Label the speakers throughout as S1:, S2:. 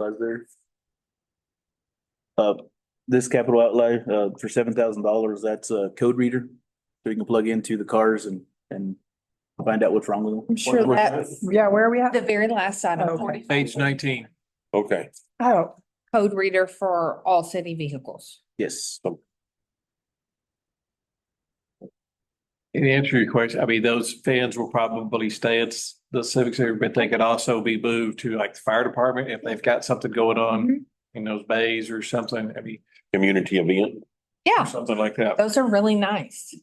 S1: Lesnar. Uh, this capital outlay, uh, for seven thousand dollars, that's a code reader. So you can plug into the cars and, and find out what's wrong with them.
S2: I'm sure that, yeah, where are we
S3: The
S2: at?
S3: very last item,
S2: Okay.
S4: Page nineteen.
S5: Okay,
S2: Oh,
S3: code reader for all city vehicles.
S1: Yes.
S4: In answer to your question, I mean, those fans will probably stay at the civic center, but they could also be moved to like the fire department if they've got something going
S3: Mm-hmm.
S4: on in those bays or something, I mean,
S5: community event.
S3: Yeah,
S4: something like that.
S3: those are really nice.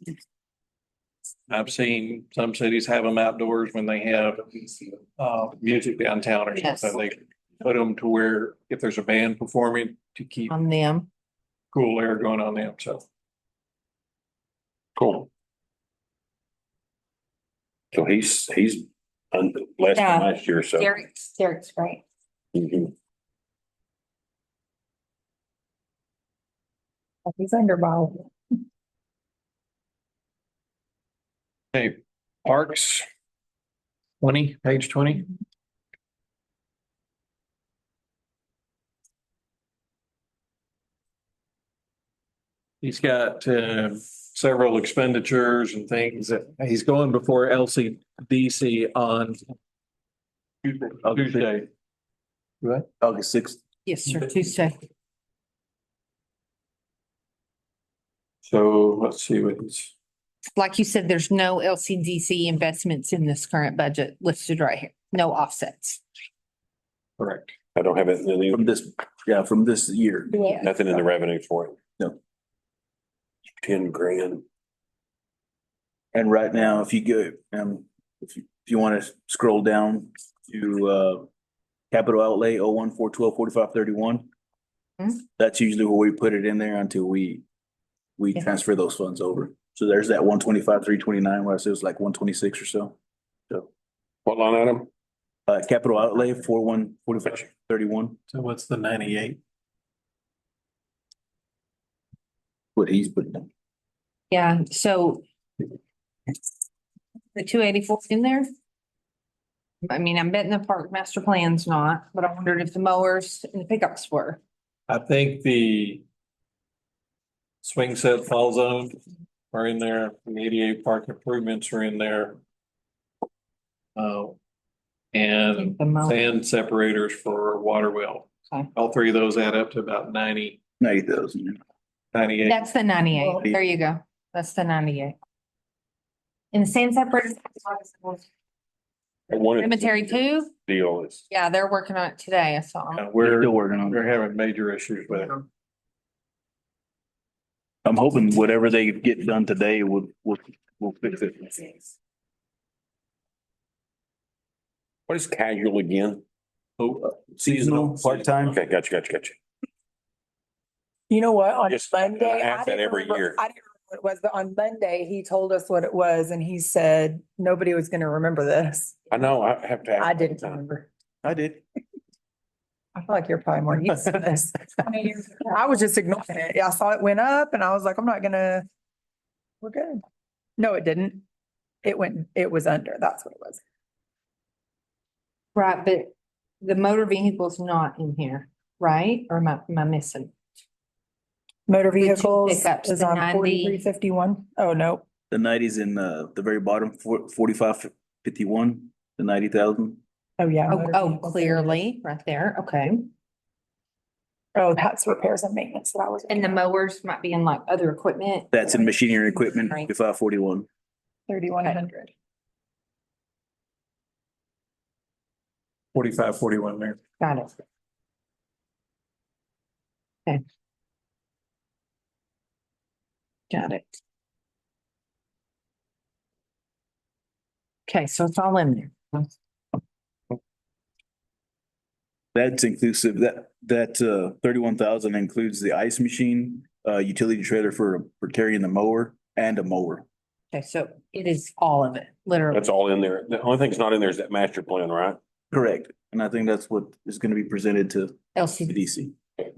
S4: I've seen some cities have them outdoors when they have uh, music downtown or
S3: Yes.
S4: something. They put them to where if there's a band performing to keep
S3: On them.
S4: cool air going on them, so.
S5: Cool. So he's, he's un- less than
S3: Yeah.
S5: last year, so.
S3: Derek's, Derek's great.
S5: Mhm.
S3: Oh,
S2: he's under by
S4: Hey, parks. Twenty, page twenty. He's got uh, several expenditures and things that he's going before LCDC on Tuesday. Right?
S1: August sixth.
S3: Yes, sir, Tuesday.
S4: So let's see what he's,
S3: Like you said, there's no LCDC investments in this current budget listed right here. No offsets.
S4: correct.
S5: I don't have anything,
S1: From this, yeah, from this year.
S3: Yeah.
S5: nothing in the revenue for it.
S1: No.
S5: Ten grand.
S1: And right now, if you go, um, if you, if you want to scroll down to, uh, capital outlay, oh, one, four, twelve, forty-five, thirty-one.
S3: Hmm.
S1: That's usually where we put it in there until we, we
S3: Yeah.
S1: transfer those funds over. So there's that one twenty-five, three twenty-nine, where I said it was like one twenty-six or so.
S5: What line item?
S1: Uh, capital outlay, four, one, forty-five, thirty-one,
S4: So what's the ninety-eight?
S1: what he's putting in.
S3: Yeah, so the two eighty-four in there? I mean, I'm betting the park master plan's not, but I wondered if the mowers and the pickups were.
S4: I think the swing set fall zone are in there, the ADA park improvements are in there. Uh, and
S3: The mow-
S4: sand separators for water well.
S3: Okay.
S4: All three of those add up to about ninety,
S1: Ninety thousand.
S4: ninety-eight.
S3: That's the ninety-eight. There you go. That's the ninety-eight. And the sand separators.
S5: I wanted-
S3: Cemetery too?
S5: Deal is,
S3: Yeah, they're working on it today. I saw 'em.
S4: Uh,
S1: We're
S4: We're,
S1: still working on it.
S4: we're having major issues with it.
S1: I'm hoping whatever they get done today will, will, will fix it.
S5: what is casual again?
S4: Oh,
S1: uh, Seasonal, part-time.
S5: Okay, gotcha, gotcha, gotcha.
S2: You know what, on
S5: Just uh,
S2: Monday. I
S5: ask that
S2: didn't
S5: every
S2: remember-
S5: year.
S2: I didn't remember what it was, but on Monday, he told us what it was and he said, nobody was gonna remember this.
S5: I know, I have to. ask
S2: I didn't
S5: all the time.
S2: remember.
S1: I did.
S2: I feel like you're probably more used to this. I mean, I was just ignoring it. Yeah, I saw it went up and I was like, I'm not gonna, we're good. No, it didn't. It went, it was under, that's what it was.
S3: Right, but the motor vehicle's not in here, right? Or am I, am I missing?
S2: Motor
S3: two
S2: vehicles
S3: pickups,
S2: is
S3: the
S2: on
S3: 90.
S2: forty-three fifty-one. Oh, no.
S1: The ninety's in uh the very bottom, four, forty-five, fifty-one, the ninety thousand.
S2: Oh, yeah.
S3: Oh,
S2: motor
S3: oh,
S2: vehicles.
S3: clearly, right there. Okay.
S2: Oh, that's repairs and maintenance that I was.
S3: And the mowers might be in like other equipment.
S1: That's in machinery and equipment, fifty-five, forty-one.
S2: Thirty-one hundred.
S4: Forty-five, forty-one there.
S3: Got it. Okay. Got it. Okay, so it's all in there.
S1: That's inclusive, that, that uh thirty-one thousand includes the ice machine, uh utility trailer for, for carrying the mower and a mower.
S3: Okay, so it is all of it, literally.
S5: That's all in there. The only thing that's not in there is that master plan, right?
S1: Correct. And I think that's what is gonna be presented to
S3: LCD.
S1: CDC.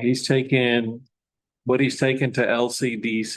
S4: He's taken, what he's taken to LCDC